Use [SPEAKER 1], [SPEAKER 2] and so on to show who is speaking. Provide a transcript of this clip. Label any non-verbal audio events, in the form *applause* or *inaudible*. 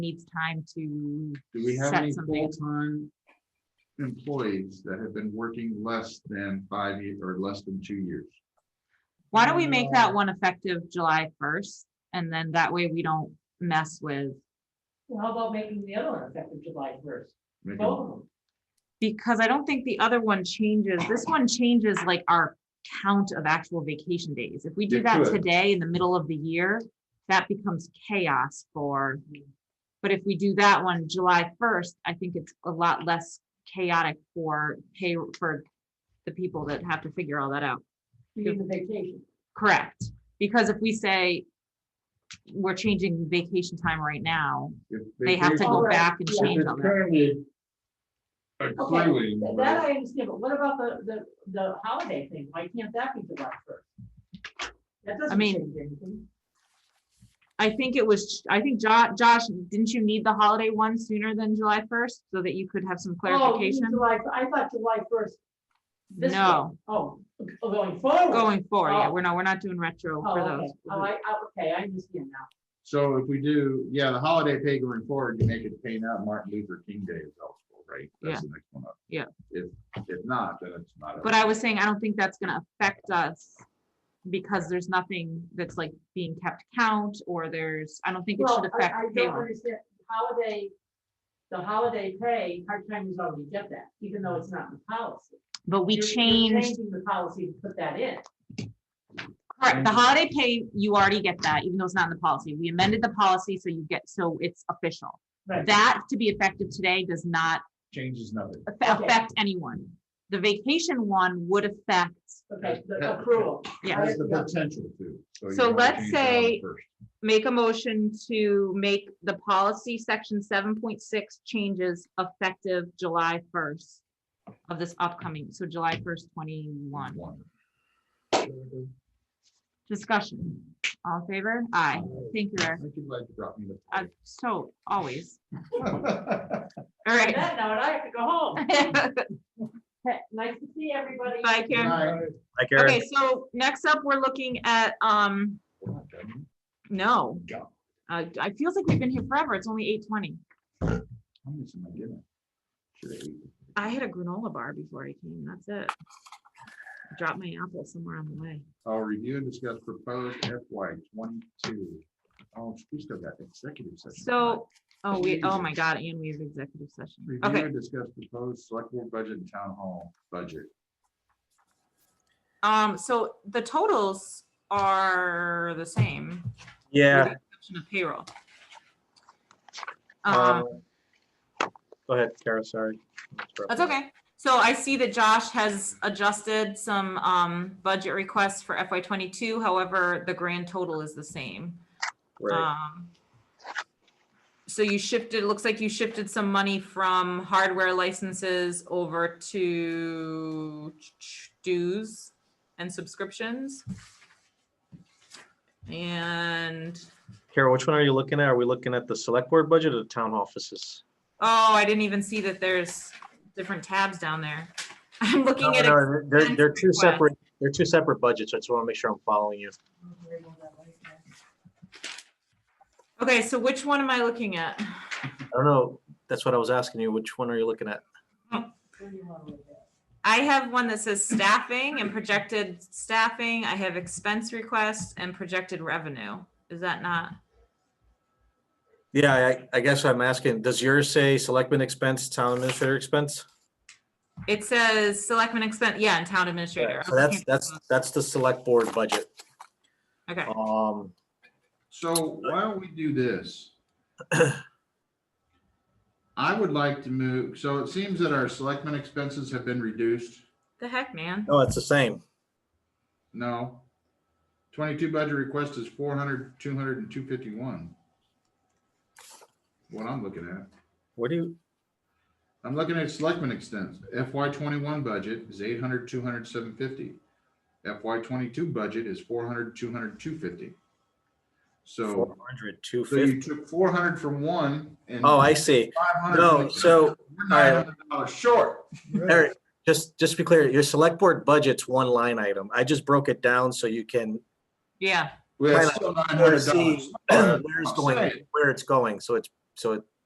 [SPEAKER 1] needs time to.
[SPEAKER 2] Do we have
[SPEAKER 1] set
[SPEAKER 2] any
[SPEAKER 1] something.
[SPEAKER 2] full-time employees that have been working less than five years or less than two years?
[SPEAKER 1] Why don't we make
[SPEAKER 2] uh,
[SPEAKER 1] that one effective July first? And then that way we don't mess with,
[SPEAKER 3] Well, how about making the other one effective July first?
[SPEAKER 2] Make it-
[SPEAKER 3] Both of them.
[SPEAKER 1] because I don't think the other one changes. This one changes like our count of actual vacation days. If we do
[SPEAKER 2] It
[SPEAKER 1] that
[SPEAKER 2] could.
[SPEAKER 1] today in the middle of the year, that becomes chaos for. But if we do that one July first, I think it's a lot less chaotic for pay, for the people that have to figure all that out.
[SPEAKER 3] We need the vacation.
[SPEAKER 1] Correct, because if we say we're changing vacation time right now,
[SPEAKER 2] if
[SPEAKER 1] they have to
[SPEAKER 2] vacation-
[SPEAKER 1] go
[SPEAKER 3] Alright,
[SPEAKER 1] back and
[SPEAKER 3] yeah.
[SPEAKER 2] if
[SPEAKER 1] change
[SPEAKER 2] it's
[SPEAKER 1] all that.
[SPEAKER 2] Currently.
[SPEAKER 3] Okay,
[SPEAKER 2] Accruing.
[SPEAKER 3] th- that I understand, but what about the, the, the holiday thing? Why can't that be July first? That doesn't
[SPEAKER 1] mean-
[SPEAKER 3] change anything.
[SPEAKER 1] I think it was, I think Jo- Josh, didn't you need the holiday one sooner than July first so that you could have some
[SPEAKER 3] Oh, you mean
[SPEAKER 1] clarification?
[SPEAKER 3] July, I thought July first. this one.
[SPEAKER 1] No,
[SPEAKER 3] Oh, oh, going forward.
[SPEAKER 1] going forward, yeah,
[SPEAKER 3] Oh.
[SPEAKER 1] we're not, we're not doing retro
[SPEAKER 3] Oh,
[SPEAKER 1] for
[SPEAKER 3] okay.
[SPEAKER 1] those.
[SPEAKER 3] Oh, I, I- okay, I understand now.
[SPEAKER 2] So if we do, yeah, the holiday pay going forward, you make it pay not Martin Luther King Day is eligible, right? That's the next one up.
[SPEAKER 1] Yeah.
[SPEAKER 2] If, if not, then it's not.
[SPEAKER 1] But I was saying, I don't think that's gonna affect us because there's nothing that's like being kept count or there's, I don't think it should
[SPEAKER 3] Well, I,
[SPEAKER 1] affect
[SPEAKER 3] I don't
[SPEAKER 1] payroll.
[SPEAKER 3] understand, holiday, the holiday pay, part-timers already get that, even though it's not in the policy.
[SPEAKER 1] But we
[SPEAKER 3] You're- you're
[SPEAKER 1] changed,
[SPEAKER 3] Changing the policy to put that in.
[SPEAKER 1] correct, the holiday pay, you already get that, even though it's not in the policy. We amended the policy so you get, so it's official.
[SPEAKER 3] Right.
[SPEAKER 1] That to be effective today does not
[SPEAKER 2] Changes nothing.
[SPEAKER 1] aff-
[SPEAKER 3] Okay.
[SPEAKER 1] affect anyone. The vacation one would affect,
[SPEAKER 3] Okay, the
[SPEAKER 2] Yeah.
[SPEAKER 3] accrual.
[SPEAKER 1] yeah,
[SPEAKER 2] Has the potential to. you
[SPEAKER 1] So
[SPEAKER 2] wanna
[SPEAKER 1] let's
[SPEAKER 2] change that one
[SPEAKER 1] say-
[SPEAKER 2] first.
[SPEAKER 1] make a motion to make the policy section seven point six changes effective July first of this upcoming, so July first, twenty-one.
[SPEAKER 2] One.
[SPEAKER 1] Discussion, all in favor? Aye. Thank you,
[SPEAKER 2] I
[SPEAKER 1] Eric.
[SPEAKER 2] think you like brought me the-
[SPEAKER 1] I'm so, always.
[SPEAKER 2] *laughs*
[SPEAKER 1] All right. *laughs*
[SPEAKER 3] That note, I have to go home. Okay, Nice to see everybody.
[SPEAKER 1] Bye, Karen.
[SPEAKER 2] Right.
[SPEAKER 4] Hi, Karen.
[SPEAKER 1] Okay, so next up, we're looking at, um,
[SPEAKER 2] We're not done.
[SPEAKER 1] no,
[SPEAKER 2] Go.
[SPEAKER 1] uh, I feels like we've been here forever. It's only eight twenty.
[SPEAKER 2] How much am I getting? Should I eat?
[SPEAKER 1] I had a granola bar before I came, that's it. Dropped my apple somewhere on the way.
[SPEAKER 2] I'll review and discuss proposed FY twenty-two. Oh, we still got executive session.
[SPEAKER 1] So, oh, we, oh
[SPEAKER 2] Jesus.
[SPEAKER 1] my God, and we have executive session.
[SPEAKER 2] Review
[SPEAKER 1] Okay,
[SPEAKER 2] and discuss proposed select board budget and town hall budget.
[SPEAKER 1] um, so the totals are the same. with the
[SPEAKER 4] Yeah.
[SPEAKER 1] exception of Payroll.
[SPEAKER 4] uh,
[SPEAKER 1] Um,
[SPEAKER 4] Go ahead, Kara, sorry.
[SPEAKER 1] that's okay. So I see that Josh has adjusted some, um, budget requests for FY twenty-two. However, the grand total is the same.
[SPEAKER 4] Right,
[SPEAKER 1] Um, So you shifted, it looks like you shifted some money from hardware licenses over to dues and subscriptions. And,
[SPEAKER 4] Kara, which one are you looking at? Are we looking at the select board budget or the town offices?
[SPEAKER 1] oh, I didn't even see that there's different tabs down there. *laughs* I'm
[SPEAKER 4] No,
[SPEAKER 1] looking at, ex-
[SPEAKER 4] no, They're, they're two
[SPEAKER 1] expense
[SPEAKER 4] separate, they're two separate budgets. I just want to make sure I'm following you.
[SPEAKER 1] okay, so which one am I looking at?
[SPEAKER 4] I don't know, that's what I was asking you. Which one are you looking at?
[SPEAKER 1] I have one that says staffing and projected staffing. I have expense requests and projected revenue. Is that not?
[SPEAKER 4] Yeah, I, I guess I'm asking, does yours say selectman expense, town administrator expense?
[SPEAKER 1] It says selectmen expense, yeah, and town administrator.
[SPEAKER 4] So that's, that's, that's the select board budget.
[SPEAKER 1] Okay,
[SPEAKER 4] Um,
[SPEAKER 2] So why don't we do this? I would like to move, so it seems that our selectmen expenses have been reduced.
[SPEAKER 1] the heck, man.
[SPEAKER 4] no, it's the same.
[SPEAKER 2] No. Twenty-two budget request is 400, 200, and two fifty-one. What I'm looking at.
[SPEAKER 4] Where do you,
[SPEAKER 2] I'm looking at selectmen extents. FY twenty-one budget is 800, 200, 750. FY twenty-two budget is 400, 200, 250. So,
[SPEAKER 4] 400,
[SPEAKER 2] so you
[SPEAKER 4] 250?
[SPEAKER 2] took four hundred from one and.
[SPEAKER 4] Oh, I see.
[SPEAKER 2] five hundred
[SPEAKER 4] No,
[SPEAKER 2] from the
[SPEAKER 4] so-
[SPEAKER 2] other. We're nine hundred dollars short.
[SPEAKER 4] Eric, just, just to be clear, your select board budget's one line item. I just broke it down so you can *clears throat*
[SPEAKER 1] Yeah,
[SPEAKER 2] We're
[SPEAKER 4] Right.
[SPEAKER 2] still nine
[SPEAKER 4] sort
[SPEAKER 2] hundred
[SPEAKER 4] of see
[SPEAKER 2] dollars.
[SPEAKER 4] *clears throat* where it's going, where it's going. So it's so it